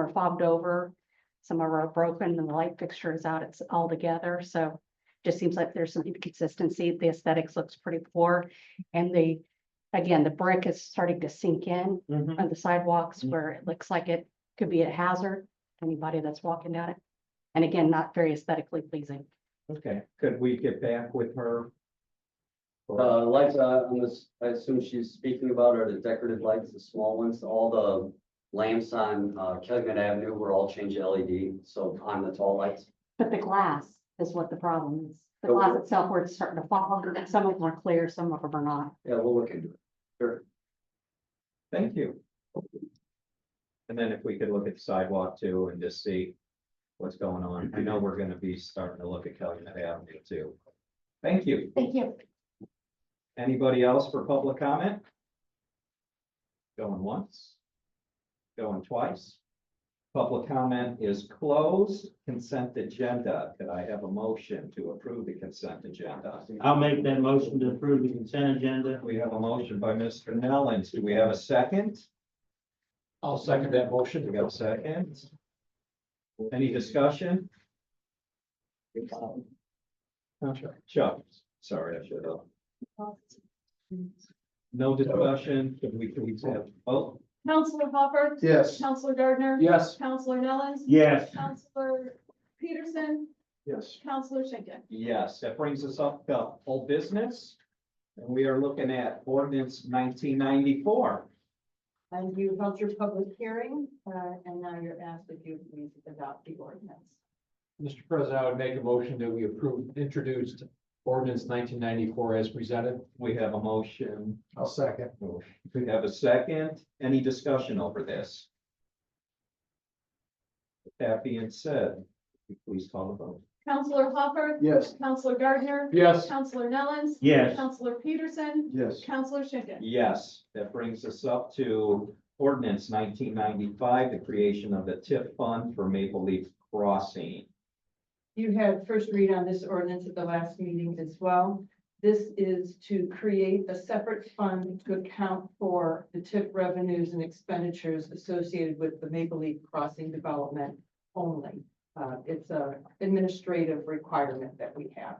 are fobbed over. Some are broken and the light fixture is out, it's all together, so just seems like there's some inconsistency. The aesthetics looks pretty poor. And the, again, the brick is starting to sink in Mm-hmm, on the sidewalks Mhm. where it looks like it could be a hazard, to anybody that's walking down it. And again, not very aesthetically pleasing. Okay, Could we get back with her? Or- uh, lights, uh, I'm ass- I assume she's speaking about are the decorative lights, the small ones, all the lamps on, uh, Kellyman Avenue were all changed to LED, so on the tall lights. But the glass is what the problem is. The Okay. glass itself where it's starting to fall, and some of them are clear, some of them are not. Yeah, we'll look into it. Sure. Thank you. And then if we could look at the sidewalk too and just see what's going on. I know we're gonna be starting to look at Calumet Avenue too. Thank you. Thank you. Anybody else for public comment? Going once? Going twice? Public comment is closed. Consent agenda. Could I have a motion to approve the consent agenda? I'll make that motion to approve the consent agenda. We have a motion by Mr. Nellens. Do we have a second? I'll second that motion. We got a second? Any discussion? Chuck, sorry, I should have. No discussion, Can we, can we have, oh, Counselor Hopper. Yes. Counselor Gardner. Yes. Counselor Nellens. Yes, Counselor Peterson. Yes. Counselor Schinkin. yes, that brings us up to whole business. And we are looking at ordinance nineteen ninety-four. And you held your public hearing, uh, and now you're asked if you please adopt the ordinance. Mr. President, I would make a motion that we approve introduced ordinance nineteen ninety-four as presented. We have a motion, I'll second. we have a second, any discussion over this? With That being said, please call the vote. Counselor Hopper. Yes. Counselor Gardner. Yes. Counselor Nellens. yes, Counselor Peterson. Yes. Counselor Schinkin. Yes, that brings us up to ordinance nineteen ninety-five, the creation of the TIF fund for Maple Leaf Crossing. You had first read on this ordinance at the last meeting as well. This is to create a separate fund to account for the TIP revenues and expenditures associated with the Maple Leaf Crossing development only. Uh, it's a administrative requirement that we have.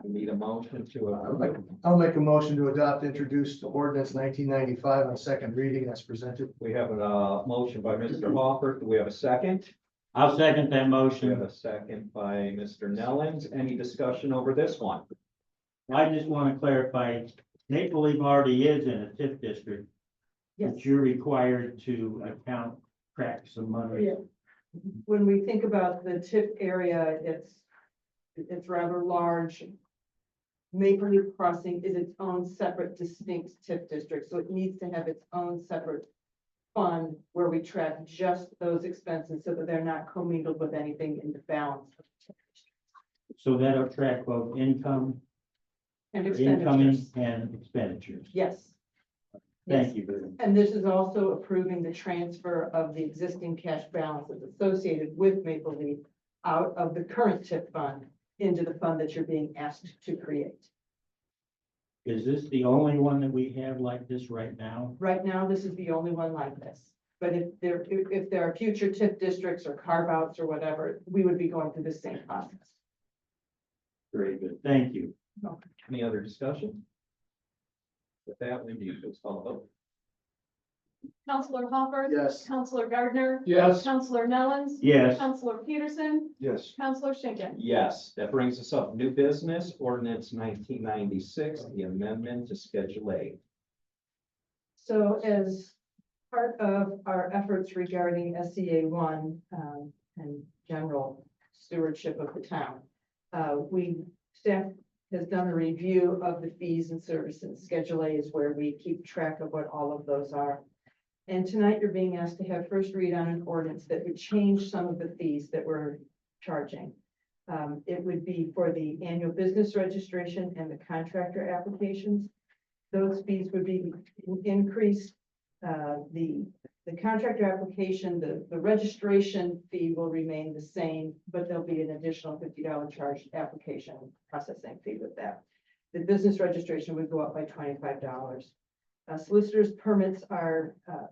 I need a motion to. uh, approve. I'll make a motion to adopt introduced ordinance nineteen ninety-five on second reading as presented. We have a uh, motion by Mr. Hopper. Do we have a second? I'll second that We have motion. a second by Mr. Nellens. Any discussion over this one? I just want to clarify, Maple Leaf already is in a TIF district, Yes. but you're required to account cracks of money. Yeah. When we think about the tip area, it's, it's rather large. Maple Leaf Crossing is its own separate distinct tip district, so it needs to have its own separate fund where we track just those expenses so that they're not commingled with anything in the balance. of the TIF district So that'll track both income, And incoming expenditures, and expenditures. yes. Thank you very much. And this is also approving the transfer of the existing cash balances associated with Maple Leaf out of the current TIP fund into the fund that you're being asked to create. Is this the only one that we have like this right now? Right now, this is the only one like this. But if there, if if there are future TIP districts or carve-outs or whatever, we would be going through the same process. Very good. Thank you. Any other discussion? With that, Wendy, please call the vote. Counselor Hopper. Yes. Counselor Gardner. Yes. Counselor Nellens. Yes, Counselor Peterson. Yes. Counselor Schinkin. Yes, that brings us up. New business, ordinance nineteen ninety-six, the amendment to Schedule A. So as part of our efforts regarding SCA one, um, and general stewardship of the town, uh, we, staff has done a review of the fees and services. Schedule A is where we keep track of what all of those are. And tonight you're being asked to have first read on an ordinance that would change some of the fees that we're charging. Um, it would be for the annual business registration and the contractor applications. Those fees would be increased. Uh, the, the contractor application, the, the registration fee will remain the same, but there'll be an additional fifty dollar charge application processing fee with that. The business registration would go up by twenty-five dollars. Solicitor's permits are, uh,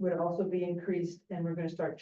would also be increased, and we're gonna start